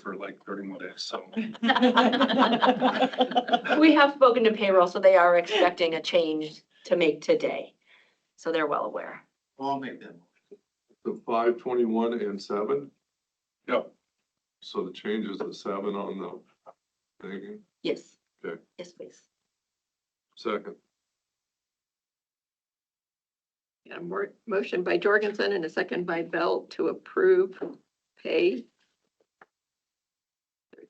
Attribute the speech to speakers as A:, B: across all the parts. A: for like thirty more days, so.
B: We have spoken to payroll, so they are expecting a change to make today. So they're well aware.
A: I'll make them.
C: The five twenty-one and seven,
A: Yep,
C: so the change is the seven on the thing,
B: Yes.
C: Okay.
B: Yes, please.
C: second.
D: Got a more, motion by Jorgensen and a second by Bell to approve pay.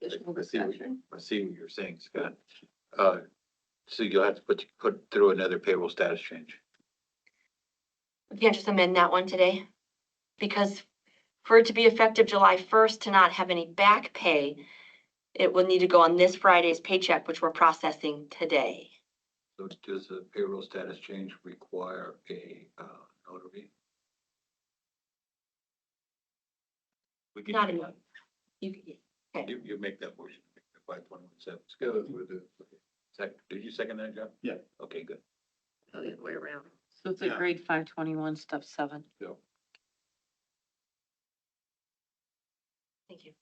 D: Additional
E: I see what you-
D: discussion?
E: I see what you're saying, Scott. Uh, so you'll have to put, put through another payroll status change.
B: Yeah, just amend that one today. Because for it to be effective July first to not have any back pay, it will need to go on this Friday's paycheck, which we're processing today.
E: So does the payroll status change require a, uh, notary? We can
B: Not
E: do
B: a-
E: that.
B: You,
E: You, you make that motion, five twenty-one seven. Go with it. Second, did you second that, John?
A: Yeah.
E: Okay, good.
D: Oh, the other way around.
F: So it's
A: Yeah.
F: a grade five twenty-one, step seven.
B: thank you.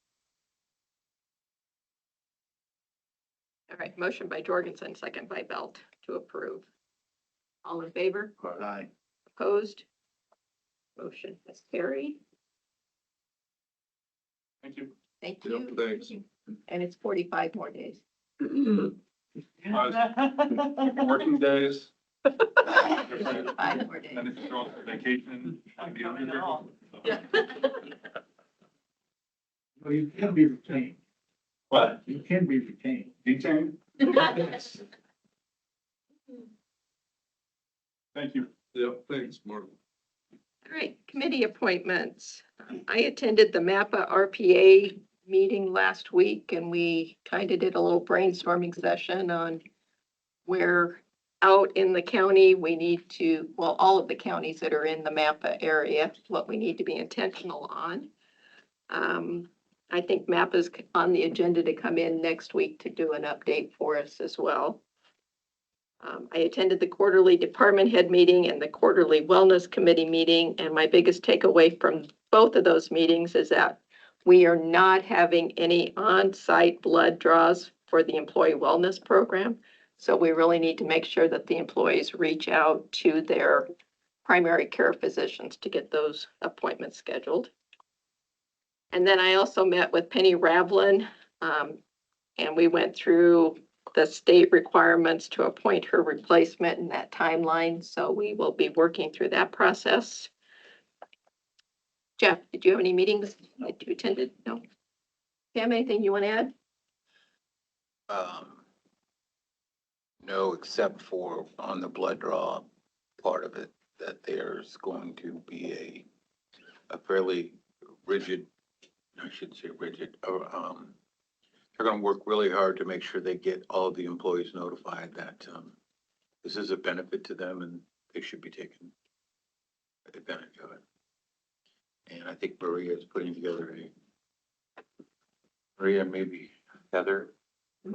D: All right, motion by Jorgensen, second by Bell to approve. All in favor?
A: aye.
D: Opposed? Motion has carried.
A: Thank you.
D: Thank
C: Yep,
D: you.
C: thanks.
D: And it's forty-five more days.
A: Working days. different,
D: Forty-five more
A: And then
D: days.
A: if you go on vacation, I'd be under there.
D: Yeah.
G: Well, you can be retained,
A: What?
G: you can be retained.
A: Detained? Thank you.
C: Yep, thanks, Martin.
D: All right, committee appointments. Um, I attended the MAPPA RPA meeting last week and we kind of did a little brainstorming session on where out in the county, we need to, well, all of the counties that are in the MAPPA area, what we need to be intentional on. Um, I think MAPPA's on the agenda to come in next week to do an update for us as well. Um, I attended the quarterly department head meeting and the quarterly wellness committee meeting, and my biggest takeaway from both of those meetings is that we are not having any on-site blood draws for the employee wellness program. So we really need to make sure that the employees reach out to their primary care physicians to get those appointments scheduled. And then I also met with Penny Ravlin, um, and we went through the state requirements to appoint her replacement in that timeline, so we will be working through that process. Jeff, did you have any meetings that you attended? No? Pam, anything you want to add?
E: Um, no, except for on the blood draw part of it, that there's going to be a, a fairly rigid, I shouldn't say rigid, or, um, they're gonna work really hard to make sure they get all the employees notified that, um, this is a benefit to them and they should be taking advantage of it. And I think Maria is putting together a, Maria, maybe Heather,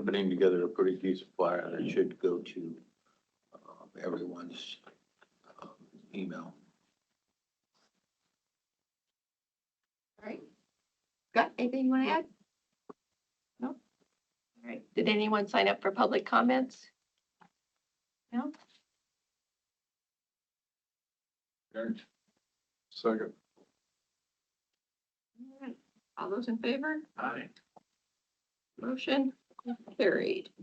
E: putting together a pretty decent flyer that should go to um, everyone's um, email.
D: All right. Scott, anything you want to add? No? All right. Did anyone sign up for public comments? No?
C: Second,
D: All right. All those in favor?
G: Aye.
D: Motion carried.